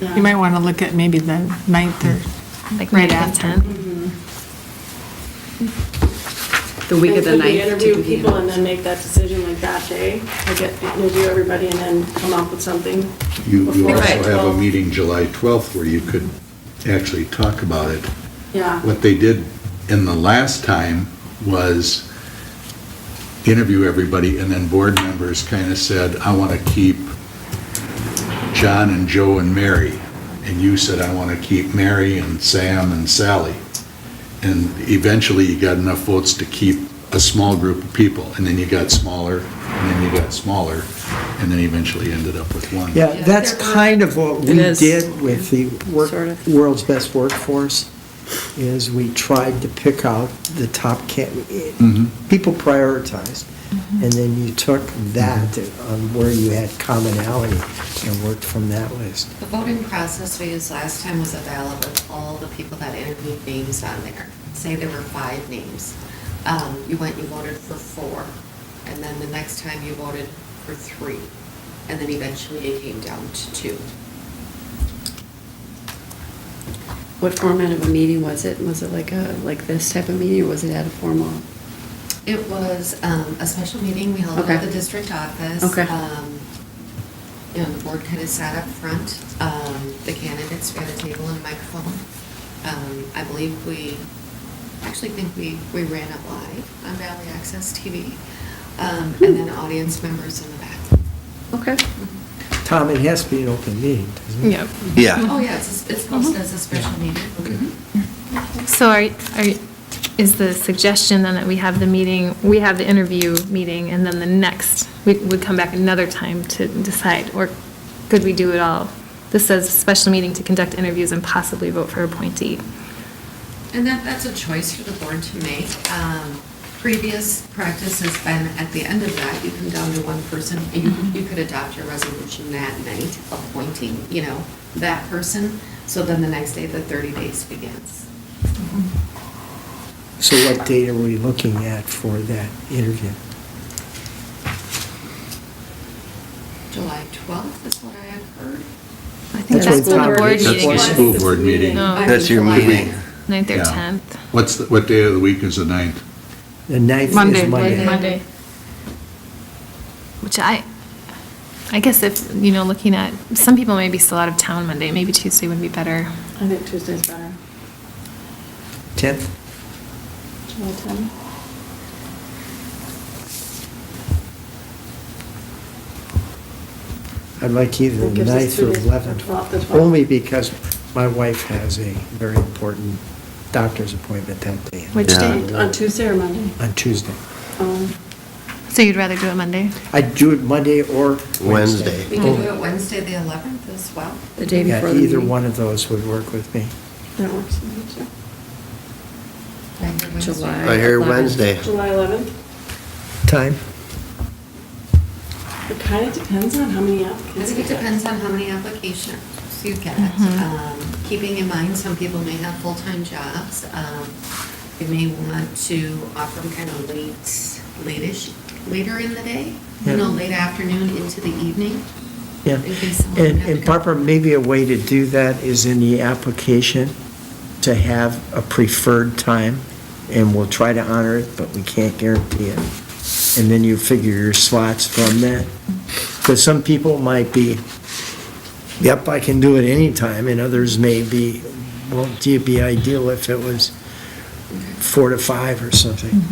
You might want to look at maybe the ninth or, Like Right right after. after. The week of the And could we ninth. interview people and then make that decision like that day? Like, get- interview everybody and then come up with something? You you before also July have a 12th? meeting July 12th where you could actually talk about it. Yeah, What they did in the last time was interview everybody, and then board members kind of said, I want to keep John and Joe and Mary. And you said, I want to keep Mary and Sam and Sally. And eventually, you got enough votes to keep a small group of people, and then you got smaller, and then you got smaller, and then eventually ended up with one. Yeah, that's kind of what we It is. did with the work- Sort of. World's Best Workforce, is we tried to pick out the top ca, people prioritized, Mm-hmm. and then you took that on where you had commonality and worked from that list. The voting process we used last time was a ballot with all the people that interviewed names on there. Say there were five names. Um, You went, you voted for four, and then the next time you voted for three, and then eventually it came down to two. What format of a meeting was it? Was it like a, like this type of meeting, or was it at a formal? It was um, a special meeting we held at Okay. the district office. Okay. Um, You know, the board kind of sat up front. Um, The candidates were at a table and a microphone. Um, I believe we, I actually think we, we ran it live on Valley Access TV. Um, And then audience members in the back. Okay. Tom, it has to be an open meeting, doesn't it? yeah. Mm-hmm. Oh, yeah, it's, it's posted as a special meeting. So are, are, is the suggestion then that we have the meeting, we have the interview meeting, and then the next, we would come back another time to decide? Or could we do it all? This says special meeting to conduct interviews and possibly vote for appointee. And that, that's a choice for the board to make. Um, Previous practice has been, at the end of that, you come down to one person, and you, you could adopt your resolution that night, appointing, you know, that person, so then the next day, the 30 days begins. So what date are we looking at for that interview? July 12th is what I have heard. I think That's that's what when the Tom board did. That's meeting the Once is. school board meeting. No. I mean, That's your July meeting. ninth. Ninth or Yeah. 10th. What's, the- what day of the week is the ninth? The ninth is Monday. Monday. Monday. Which I, I guess if, you know, looking at, some people may be still out of town Monday, maybe Tuesday would be better. I think Tuesday's better. 10th? July 10. I'd like either That the gives us ninth two or days. eleventh, Twelve, the twelfth. only because my wife has a very important doctor's appointment that day. Which Yeah. day? On Tuesday or Monday? On Tuesday. Um, So you'd rather do it Monday? I'd do it Monday or Wednesday. Wednesday. We can do Oh. it Wednesday, the 11th as well. The day Yeah, before the meeting? either one of those would work with me. That works for me too. I hear Wednesday. July. I hear 11th. Wednesday. July 11th? Time? It kind of depends on how many I applicants. think it we get. depends on how many applications you get. Mhm. Um, Keeping in mind, some people may have full-time jobs. Um, You may want to offer them kind of late, late-ish, later in the day, you Yeah. know, late afternoon into the evening. Yeah. In case someone And, had to and go. Barbara, maybe a way to do that is in the application to have a preferred time, and we'll try to honor it, but we can't guarantee it. And then you figure your slots from that. Because some people might be, yep, I can do it anytime, and others may be, well, it'd be ideal if it was four to five or something.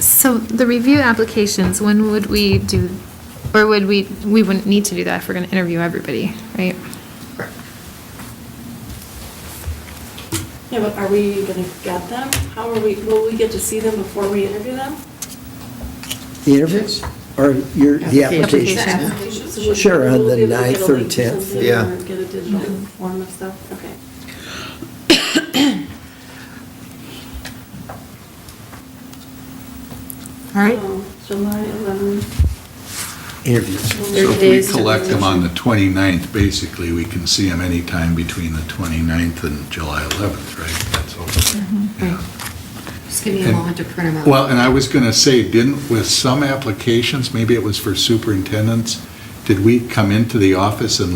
So the review applications, when would we do, or would we, we wouldn't need to do that if we're going to interview everybody, right? Yeah, but are we going to get them? How are we, will we get to see them before we interview them? The interviews, or your, the Application. application? Application. So we'll- Sure, on we'll the be able to get a 9th or link to 10th. something Yeah. or Get a digital form of stuff, okay. All right, Um, So, July 11th. Interviews. So So if we days to collect them on the 29th, basically, we can see them anytime between the 29th and July 11th, right? That's all. Yeah. Just give me a And- moment to print them out. Well, and I was going to say, didn't, with some applications, maybe it was for superintendents, did we come into the office and